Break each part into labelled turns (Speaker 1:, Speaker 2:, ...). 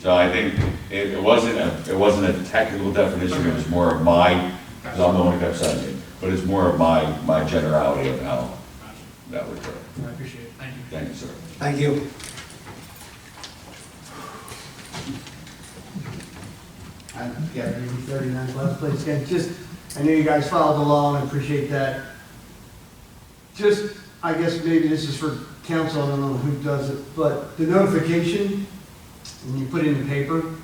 Speaker 1: So I think it, it wasn't a, it wasn't a technical definition, it was more of my, because I'm the one who kept sending it, but it's more of my, my generality of how that would work.
Speaker 2: I appreciate it, thank you.
Speaker 1: Thank you, sir.
Speaker 3: Thank you. I- Uh, Yeah, maybe 39 last place, again, just, I know you guys followed along, I appreciate that. Just, I guess maybe this is for council, I don't know who does it, but the notification, when you put it in the paper,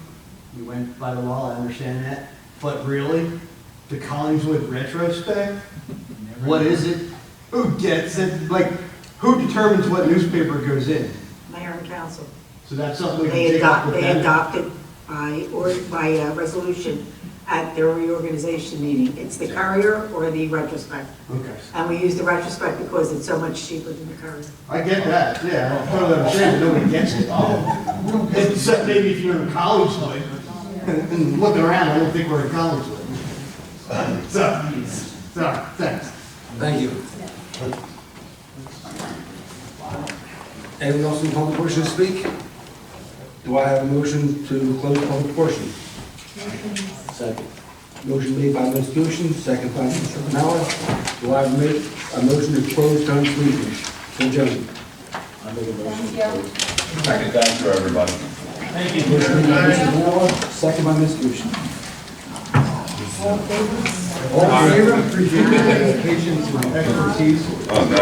Speaker 3: you went by the law, I understand that, but really, the Collingswood retrospect, what is it? Who gets it? Like, who determines what newspaper goes in?
Speaker 4: Mayor and council.
Speaker 3: So that's something we can
Speaker 4: They
Speaker 3: take up
Speaker 4: adopt,
Speaker 3: with
Speaker 4: they
Speaker 3: them.
Speaker 4: adopted by, or by uh, resolution at their reorganization meeting. It's the courier or the retrospect.
Speaker 3: Okay,
Speaker 4: And we use the retrospect because it's so much cheaper than the courier.
Speaker 3: I get that, yeah, I totally understand, but nobody gets it. Except maybe if you're in college, like, and and looking around, I don't think we're in college. like. So, sorry, thanks.
Speaker 5: Thank you. Anyone else in the public portion to speak? Do I have a motion to close the public portion? Second. Motion made by Ms. Fusion, second by Mr. Canales. Do I have ma- a motion to close town's meeting? Mr. Jones? I make a motion.
Speaker 1: Thank you, everybody.
Speaker 5: Motion by Mr. Canales, second by Ms. Fusion. All in favor?
Speaker 3: Appreciate your patience and expertise.
Speaker 1: Oh, no,